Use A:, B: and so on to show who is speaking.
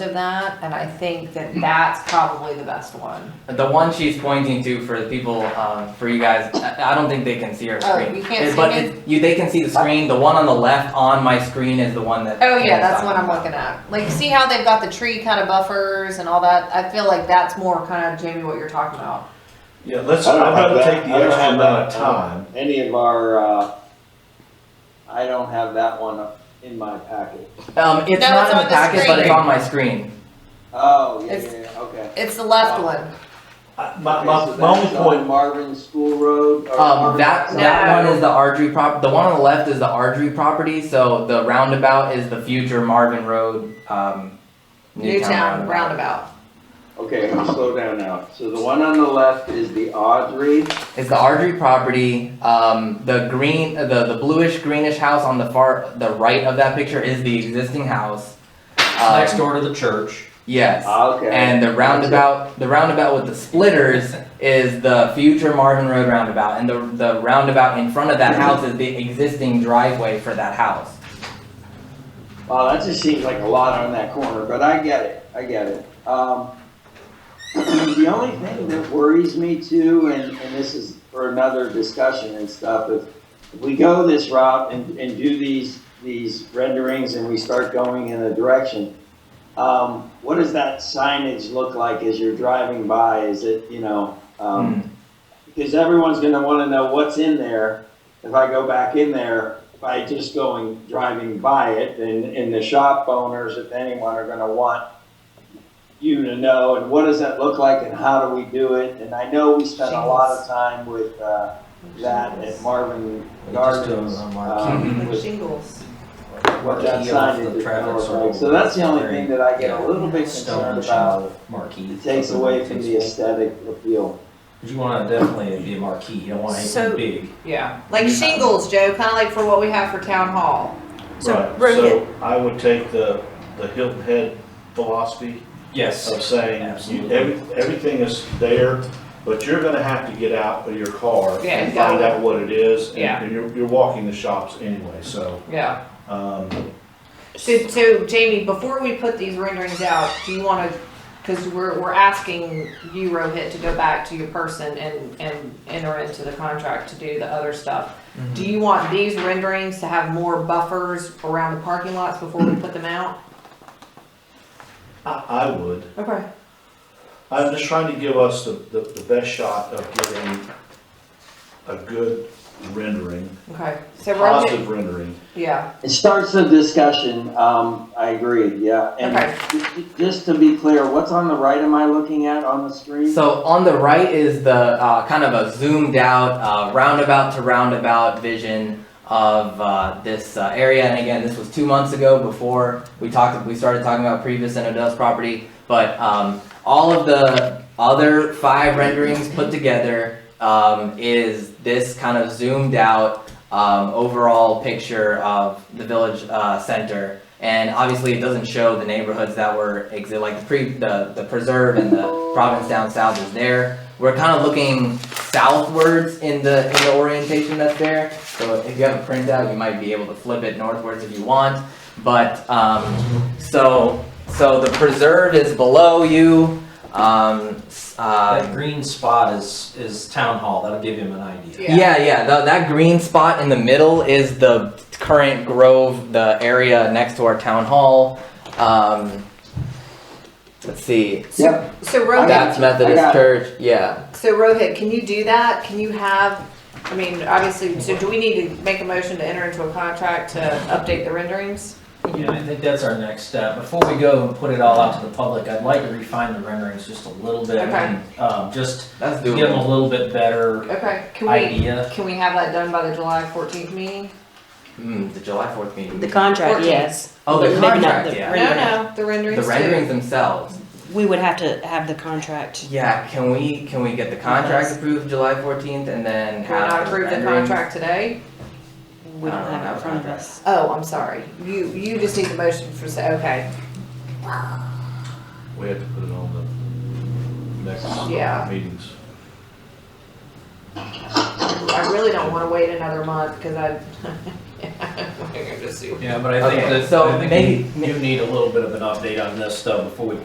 A: of that, and I think that that's probably the best one.
B: The one she's pointing to for the people, um, for you guys, I I don't think they can see her
A: Oh,
B: screen.
A: you can't
B: It-
A: see
B: but
A: me?
B: it- you, they can see the screen. The one on the left on my screen is the one that.
A: Oh yeah,
B: Anna's
A: that's
B: talking
A: what I'm
B: about.
A: looking at. Like, see how they've got the tree kind of buffers and all that? I feel like that's more kind of Jamie what you're talking about.
C: Yeah, let's,
D: I don't
C: I'd rather
D: have that-
C: take the
D: I don't
C: extra
D: have
C: amount of
D: that,
C: time.
D: Any of our, uh, I don't have that one in my packet.
B: Um, it's
A: No,
B: not
A: it's
B: in
A: on
B: the
A: the
B: packet, but it's
A: screen.
B: on my screen.
D: Oh, yeah,
A: It's-
D: yeah, yeah, okay.
A: It's the left one.
C: I- My,
D: Okay,
C: my,
D: so
C: my only
D: that's on
C: point,
D: Marvin School Road. or
B: Um,
D: Marvin-
B: that
A: No.
B: that one is the Ardrey prop. The one on the left is the Ardrey property. So the roundabout is the future Marvin Road. Um,
A: Newtown roundabout.
D: Okay, I'm gonna slow down now. So the one on the left is the Audrey.
B: It's the Ardrey property. Um, the green, uh, the the bluish greenish house on the far the right of that picture is the existing house. Um,
E: next door Ah, to the church.
B: Yes.
D: Okay.
B: And the roundabout, the roundabout with the splitters is the future Marvin Road roundabout, and the the roundabout in front of that house is the existing driveway for that house.
D: Wow, that just seems like a lot on that corner, but I get it, I get it. Um, the only thing that worries me too, and, and this is for another discussion and stuff, if, if we go this route and, and do these, these renderings and we start going in a direction, um, what does that signage look like as you're driving by? Is it, you know, um, because everyone's gonna wanna know what's in there. If I go back in there, by just going, driving by it, and, and the shop owners, if anyone, are gonna want you to know, and what does that look like, and how do we do it? And I know we spent a lot of time with, uh, that at Marvin
E: We just do it
D: Gardens.
E: on
D: um, with
A: Shingles.
D: What that
E: Marquee off
D: signage
E: the
D: is gonna
E: traffic
D: look
E: circle.
D: like. So that's the only
E: Very
D: thing that I get a little bit
E: Stone
D: concerned about.
E: shingle Marquee.
D: It takes away from the aesthetic appeal.
E: You wanna definitely be a marquee, you don't want
F: So-
E: anything big.
A: Yeah, like shingles, Joe, kind of like for what we have for town hall.
F: So
C: right,
F: Rohit,
C: so I would take the, the Hilton Head philosophy
E: Yes.
C: of saying, you-
E: Absolutely.
C: every, everything is there, but you're gonna have to get out of your car
A: Yeah,
C: and find
A: exactly.
C: out what it is, and-
A: Yeah.
C: and you're, you're walking the shops anyway, so,
A: Yeah.
C: um,
A: So, so Jamie, before we put these renderings out, do you want to? Because we're, we're asking you, Rohit, to go back to your person and, and enter into the contract to do the other stuff. Do you want these renderings to have more buffers around the parking lots before we put them out?
C: I, I would.
A: Okay.
C: I'm just trying to give us the, the, the best shot of giving a good rendering,
A: Okay. So Rohit,
C: positive rendering.
A: yeah.
D: It starts the discussion, um, I agree, yeah. And
A: Okay.
D: j- j- just to be clear, what's on the right am I looking at on the screen?
B: So on the right is the uh, kind of a zoomed out uh, roundabout to roundabout vision of uh, this uh, area. And again, this was two months ago before we talked. We started talking about previous Dust property, but um, all of the other five renderings put together um, is this kind of zoomed out um, overall picture of the village uh, center. And obviously, it doesn't show the neighborhoods that were exi- like the pre the the preserve and the province down south is there. We're kind of looking southwards in the in the orientation that's there. So if you have a printout, you might be able to flip it northwards if you want. But um, so so the preserve is below you. Um, s- um,
D: uh,
E: That green spot is, is town hall, that'll give him an idea.
A: Yeah.
B: yeah, yeah. tha- that green spot in the middle is the current grove, the area next to our town hall. Um, let's see.
D: Yep,
A: So
D: I
A: Rohit,
D: got
B: That's
D: you, I got
B: Methodist
D: it.
B: Church. Yeah.
A: So Rohit, can you do that? Can you have, I mean, obviously, so do we need to make a motion to enter into a contract to update the renderings?
E: Yeah, I think that's our next step. Before we go and put it all out to the public, I'd like to refine the renderings just a little bit.
A: Okay.
E: Um, just
B: That's
E: to give them
B: doable.
E: a little bit better
A: Okay, can we,
E: idea.
A: can we have that done by the July fourteenth meeting?
B: Mm, the July Fourth meeting.
F: the contract,
A: Fourteen.
F: yes.
B: oh, the
F: Maybe not
B: contract.
F: the
B: Yeah.
A: No, no, the renderings
B: The
A: too.
B: renderings themselves.
F: We would have to have the contract.
B: Yeah. Can we can we get the contract approved July Fourteenth and then
A: Can we
B: have
A: not approve the
B: renderings?
A: contract today?
F: We
B: I
F: don't
B: don't
F: have
B: have
F: it
B: a
F: in front of
B: contract.
F: us.
A: Oh, I'm sorry. You, you just need the motion for, say, okay.
C: We have to put it on the next
A: Yeah.
C: meetings.
A: I really don't wanna wait another month, cause I, I'm gonna sue.
E: Yeah, but I think
B: Okay,
E: that,
B: so
E: I
B: maybe-
E: think you need a little bit of an update on this though, before we